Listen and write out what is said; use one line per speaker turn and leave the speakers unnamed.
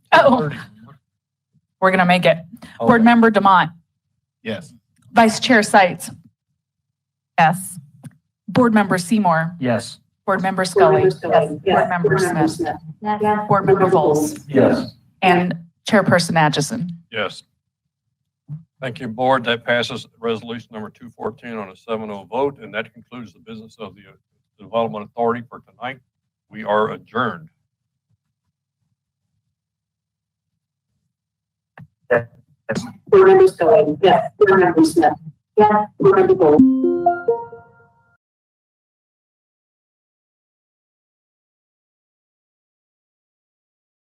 No, we're going to make it. Board Member Demont.
Yes.
Vice Chair Sights. Yes. Board Member Seymour.
Yes.
Board Member Scully. Board Member Smith.
Yes.
Board Member Vols.
Yes.
And Chairperson Atchison.
Yes. Thank you, Board. That passes resolution number 214 on a 7-0 vote, and that concludes the business of the Development Authority for tonight. We are adjourned.
Board Member Scully. Yes. Board Member Smith. Yes. Board Member Bowles.